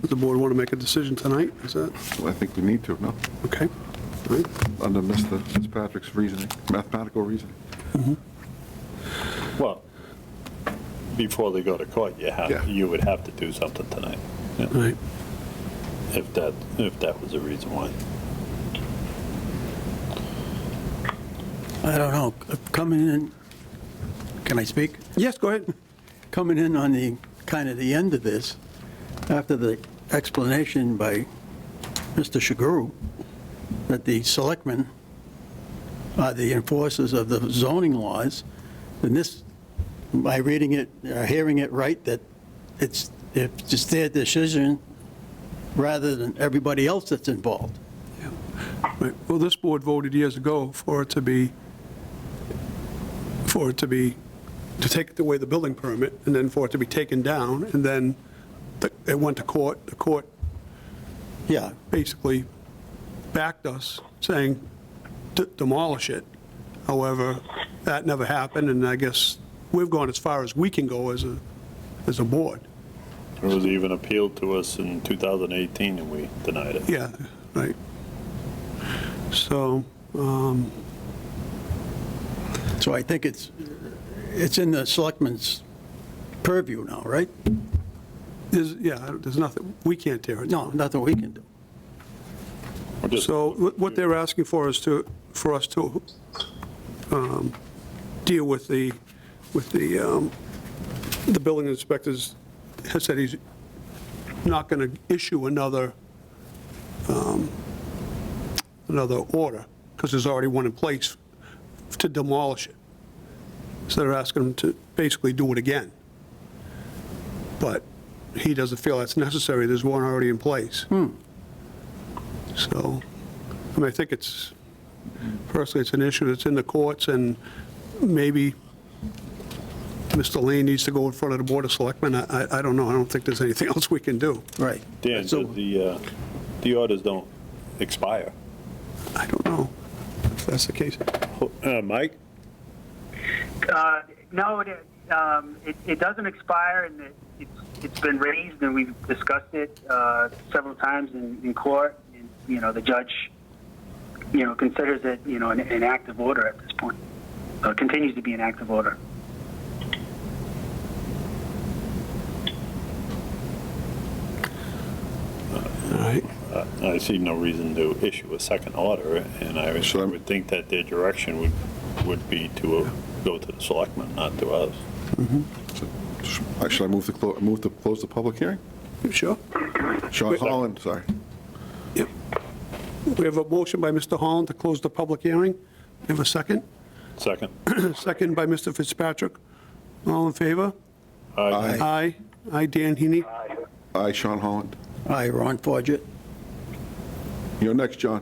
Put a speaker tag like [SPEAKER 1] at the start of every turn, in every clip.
[SPEAKER 1] Does the board want to make a decision tonight? Is that,
[SPEAKER 2] I think we need to, no?
[SPEAKER 1] okay? All right.
[SPEAKER 2] Under Mr. Fitzpatrick's reasoning, mathematical reasoning.
[SPEAKER 3] Well, before they go to court, you
[SPEAKER 2] Yeah.
[SPEAKER 3] have, you would have to do something tonight, yeah,
[SPEAKER 1] All right.
[SPEAKER 3] if that, if that was the reason why.
[SPEAKER 4] I don't know, coming in, can I speak?
[SPEAKER 1] Yes, go ahead.
[SPEAKER 4] Coming in on the, kind of the end of this, after the explanation by Mr. Shaguru, that the selectmen are the enforcers of the zoning laws, then this, by reading it, or hearing it right, that it's, it's just their decision rather than everybody else that's involved.
[SPEAKER 1] Right. Well, this board voted years ago for it to be, for it to be, to take away the building permit, and then for it to be taken down, and then the- it went to court. The court
[SPEAKER 4] Yeah,
[SPEAKER 1] basically backed us, saying "D- demolish it. However, that never happened, and I guess we've gone as far as we can go as a, as a board.
[SPEAKER 3] It was even appealed to us in 2018 and we denied it.
[SPEAKER 1] Yeah, right. So, um,
[SPEAKER 4] so I think it's, it's in the selectmen's purview now, right?
[SPEAKER 1] there's, yeah, there's nothing, we can't tear it down.
[SPEAKER 4] No, nothing we can do.
[SPEAKER 3] We're just-
[SPEAKER 1] So what what they're asking for is to, for us to um, deal with the, with the, um, the building inspectors has said he's not going to issue another, um, another order, because there's already one in place to demolish it. So they're asking him to basically do it again. But he doesn't feel that's necessary, there's one already in place. So, I mean, I think it's, personally, it's an issue that's in the courts, and maybe Mr. Lane needs to go in front of the Board of Selectmen. I, I- I don't know, I don't think there's anything else we can do.
[SPEAKER 4] Right.
[SPEAKER 3] Dan,
[SPEAKER 4] So-
[SPEAKER 3] does the, uh, the orders don't expire.
[SPEAKER 1] I don't know if that's the case.
[SPEAKER 3] Uh, Mike?
[SPEAKER 5] Uh, no, it, um, it, it doesn't expire, and it, it's, it's been raised, and we've discussed it uh, several times in, in court. And, you know, the judge, you know, considers it, you know, an, an active order at this point. Uh, continues to be an active order.
[SPEAKER 1] All right,
[SPEAKER 3] I see no reason to issue a second order, and I
[SPEAKER 2] So I'm-
[SPEAKER 3] would think that their direction would, would be to uh, go to the selectmen, not to us.
[SPEAKER 2] So, sh- Should I move to, clo- move to close the public hearing?
[SPEAKER 1] You sure?
[SPEAKER 2] Sean Holland, sorry.
[SPEAKER 1] Yep. We have a motion by Mr. Holland to close the public hearing. We have a second.
[SPEAKER 3] Second?
[SPEAKER 1] Second by Mr. Fitzpatrick. All in favor?
[SPEAKER 3] Aye.
[SPEAKER 2] Aye.
[SPEAKER 1] Aye. Aye, Dan Heaney.
[SPEAKER 2] Aye, Sean Holland.
[SPEAKER 4] Aye, Ron Forget.
[SPEAKER 2] You're next, John.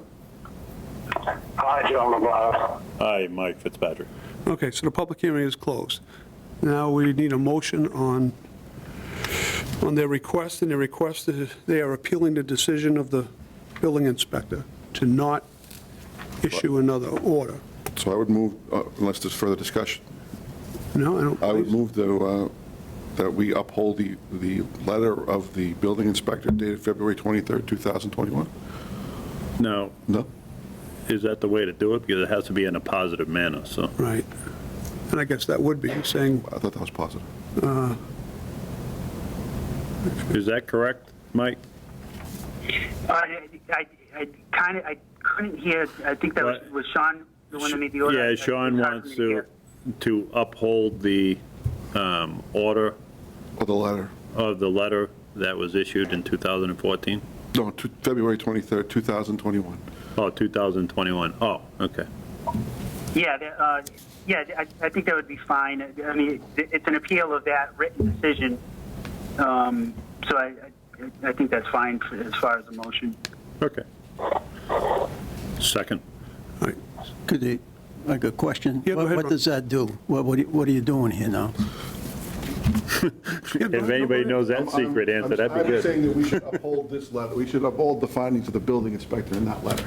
[SPEAKER 6] Hi, John McGuire.
[SPEAKER 3] Aye, Mike Fitzpatrick.
[SPEAKER 1] Okay, so the public hearing is closed. Now we need a motion on, on their request, and their request is, they are appealing the decision of the building inspector to not issue another order.
[SPEAKER 2] So I would move, uh, unless there's further discussion,
[SPEAKER 1] No, I don't
[SPEAKER 2] I would
[SPEAKER 1] believe,
[SPEAKER 2] move to, uh, that we uphold the, the letter of the building inspector dated February 23rd, 2021?
[SPEAKER 3] Now,
[SPEAKER 2] No?
[SPEAKER 3] is that the way to do it? Because it has to be in a positive manner, so.
[SPEAKER 1] right. And I guess that would be saying,
[SPEAKER 2] I thought that was positive.
[SPEAKER 3] Is that correct, Mike? Uh,
[SPEAKER 5] I, I, I kind of I couldn't hear. I think that was,
[SPEAKER 3] What?
[SPEAKER 5] was Sean the one that made the order.
[SPEAKER 3] Yeah,
[SPEAKER 5] It's
[SPEAKER 3] Sean
[SPEAKER 5] hard for
[SPEAKER 3] wants
[SPEAKER 5] me
[SPEAKER 3] to,
[SPEAKER 5] hear.
[SPEAKER 3] to uphold the um, order
[SPEAKER 2] Or the letter?
[SPEAKER 3] of the letter that was issued in 2014?
[SPEAKER 2] No, to- February 23rd, 2021.
[SPEAKER 3] Oh, 2021. Oh, okay.
[SPEAKER 5] Yeah, the- uh, yeah, I, I think that would be fine. I mean, it- it's an appeal of that written decision, um, so I, I, I think that's fine for, as far as the motion.
[SPEAKER 3] Okay. Second.
[SPEAKER 1] all right,
[SPEAKER 4] Could you, I got a question?
[SPEAKER 1] Yeah, go
[SPEAKER 4] What-
[SPEAKER 1] ahead,
[SPEAKER 4] What
[SPEAKER 1] Ron.
[SPEAKER 4] does that do? What, what are you- what are you doing here now?
[SPEAKER 3] If anybody knows that secret answer, that'd be
[SPEAKER 2] I'm saying
[SPEAKER 3] good.
[SPEAKER 2] that we should uphold this letter, we should uphold the findings of the building inspector in that letter.